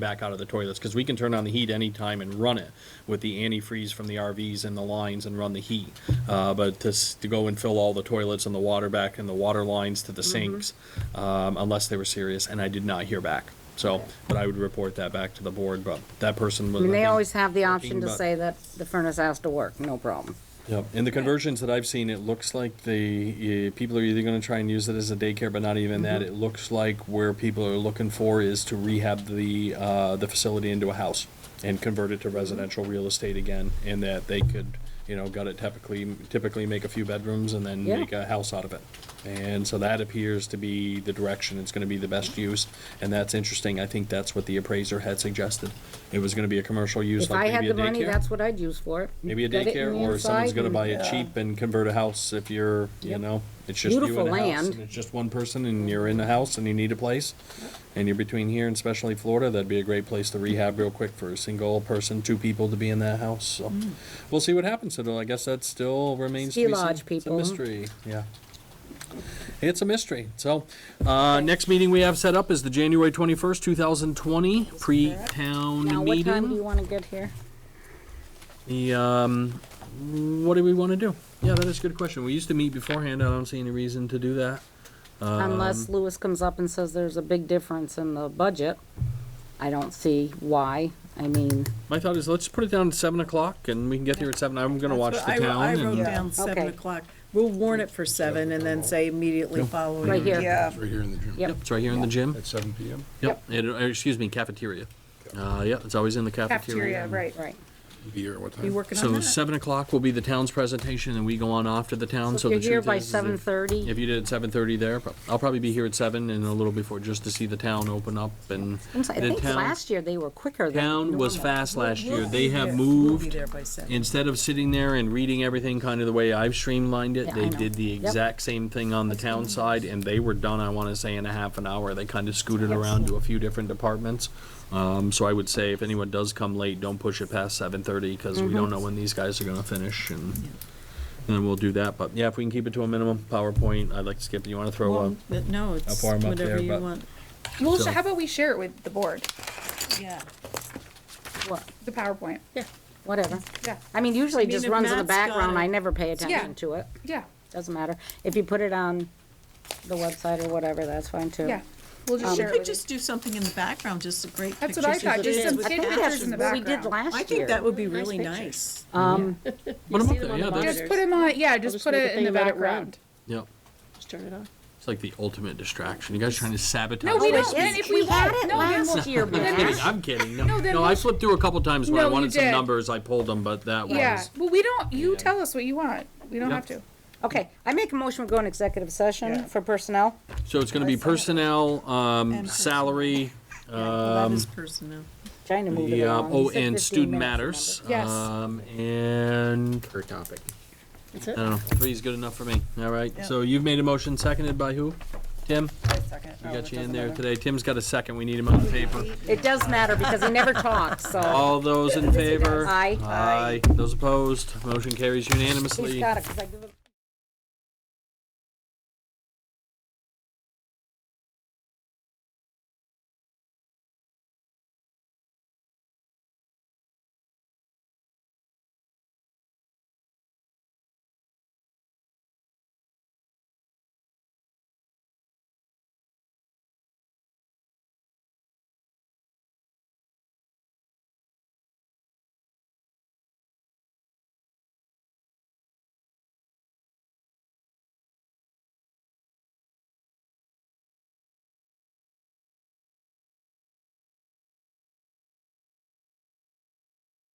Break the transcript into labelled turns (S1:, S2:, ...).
S1: back out of the toilets, because we can turn on the heat anytime and run it with the antifreeze from the RVs and the lines and run the heat. Uh, but to, s- to go and fill all the toilets and the water back and the water lines to the
S2: Mm-hmm.
S1: sinks, um, unless they were serious, and I did not hear back. So, but I would report that back to the board, but that person was.
S2: I mean, they always have the option to
S1: about-
S2: say that the furnace has to work, no problem.
S1: Yep, and the conversions that I've seen, it looks like the, uh, people are either gonna try and use it as a daycare, but not even that. It
S2: Mm-hmm.
S1: looks like where people are looking for is to rehab the, uh, the facility into a house and convert
S2: Mm-hmm.
S1: it to residential real estate again, and that they could, you know, gut it typically, typically make a few bedrooms and then
S2: Yeah.
S1: make a house out of it. And so that appears to be the direction it's gonna be the best use, and that's interesting. I think that's what the appraiser had suggested. It was gonna be a commercial use,
S2: If I
S1: like
S2: had
S1: maybe a
S2: the
S1: daycare.
S2: money, that's what I'd use for it.
S1: Maybe a
S2: Get it in
S1: daycare,
S2: the
S1: or someone's
S2: inside
S1: gonna
S2: and-
S1: buy it cheap and convert a house if you're, you
S2: Yep.
S1: know, it's just you
S2: Beautiful
S1: and a house.
S2: land.
S1: and It's just one person and you're in a house and you need a place, and you're between here and especially Florida, that'd be a great place to rehab real quick for a single person, two people to be in that house, so. We'll see what happens, so I guess that still remains to
S2: Ski
S1: be seen.
S2: Mm. lodge
S1: It's a
S2: people.
S1: mystery, yeah. It's a mystery, so, uh, next meeting we have set up is the January twenty-first, two thousand twenty, pre-town meeting.
S2: Now, what time do you wanna get here?
S1: The, um, what do we want to do? Yeah, that is a good question. We used to meet beforehand. I don't see any reason to do that.
S2: Unless
S1: Um,
S2: Lewis comes up and says there's a big difference in the budget, I don't see why. I mean,
S1: My thought is let's put it down at seven o'clock and we can get here at seven. I'm gonna watch
S3: That's
S1: the
S3: what I wrote-
S1: town
S3: I wrote
S1: and
S3: down
S2: Okay.
S3: seven o'clock. We'll warn it for seven and then say immediately following. uh,
S2: right here.
S4: Yeah,
S5: It's right here in the gym
S2: Yep.
S1: it's right here in the gym.
S5: at seven PM.
S1: Yep. It- uh, excuse me, cafeteria. Uh, yeah, it's always in the
S4: cafeteria,
S1: cafeteria.
S4: right.
S2: Right.
S5: Be here at what time?
S3: You working on
S1: So
S3: that?
S1: seven o'clock will be the town's presentation and we go on off to the town. So
S2: So
S1: the
S2: if you're here
S1: truth
S2: by
S1: is, is
S2: seven
S1: if-
S2: thirty,
S1: if you did at seven thirty there, prob- I'll probably be here at seven and a little before just to see the town open up and
S2: I
S1: the
S2: think
S1: town.
S2: last year they were quicker than
S1: Town was
S2: normal.
S1: fast last year. They have
S3: We'll be
S1: moved
S3: there by seven.
S1: instead of sitting there and reading everything kind of the way I've streamlined it,
S2: Yeah,
S1: they
S2: I know.
S1: did the
S2: Yep.
S1: exact same thing on the town side, and they were done, I wanna say, in a half an hour. They kind of scooted around to a few different departments. Um, so I would say if anyone does come late, don't push it past seven thirty, cause we don't know when these guys are gonna finish, and then we'll do that, but yeah, if we can keep it to a minimum, PowerPoint, I'd like to skip, you wanna throw
S3: Well,
S1: one?
S3: but No, it's
S1: form up there,
S3: whatever you
S1: but-
S3: want.
S4: Well,
S1: So-
S4: so how about we share it with the board,
S3: Yeah.
S2: What-
S4: the PowerPoint? Yeah.
S2: Whatever.
S4: Yeah,
S2: I mean, usually
S3: I
S2: it just
S3: mean, if
S2: runs in the
S3: Matt's got
S2: background. I
S3: it-
S2: never pay attention to it.
S4: yeah,
S2: Doesn't matter. If you put it on the website or whatever, that's fine too.
S4: yeah. We'll just
S3: You
S4: share it
S3: could
S4: with
S3: just do something in the background, just a great
S4: That's
S3: picture.
S4: what I
S3: so
S4: thought,
S3: that
S4: just
S3: it
S4: some
S3: would
S2: I think
S4: Kid
S3: match.
S2: that's
S4: pictures in the
S2: what we did
S4: background.
S2: last year.
S3: I think that would be really nice.
S2: Um,
S1: Put 'em up there, yeah,
S4: you.
S1: that's,
S4: Just put him on, yeah, just
S6: just
S4: put
S6: make a
S4: it in
S6: thing
S4: the
S6: about it
S4: background.
S1: yeah,
S6: Just turn it on.
S1: it's like the ultimate distraction. You guys trying to sabotage.
S4: No, we
S1: my
S4: don't.
S1: speech.
S4: And if
S2: we
S4: we
S2: had
S4: won't-
S2: it
S4: no, then we'll-
S2: last year,
S1: I'm
S2: Matt.
S1: kidding, I'm kidding. No,
S4: No, then
S1: no,
S4: we'll-
S1: I flipped through a couple times when I
S4: No, you
S1: wanted some
S4: did.
S1: numbers, I pulled them, but that
S4: Yeah,
S1: was.
S4: well, we don't, you
S1: Yeah.
S4: tell us what you want. We don't
S1: Yeah.
S4: have to.
S2: Okay, I make a motion, we go in executive session for personnel.
S1: So it's gonna be personnel, um,
S3: And
S1: salary,
S3: Well,
S1: Um,
S3: that is personnel.
S2: Trying to move it
S1: the, uh,
S2: along. You
S1: oh,
S2: said
S1: and
S2: 15
S1: student matters.
S2: minutes, remember?
S4: Yes.
S1: Um, and,
S7: per topic.
S6: That's
S1: I
S6: it?
S1: don't know, three's good enough for me, all right?
S3: Yeah.
S1: So you've made a motion, seconded by who? Tim? We got you in there today. Tim's got a second, we need him on the paper.
S2: It does matter because he never talks, so
S1: All those in favor?
S2: Aye.
S1: Aye. Those opposed? Motion carries
S2: he's
S1: unanimously.
S2: got it, because I give him.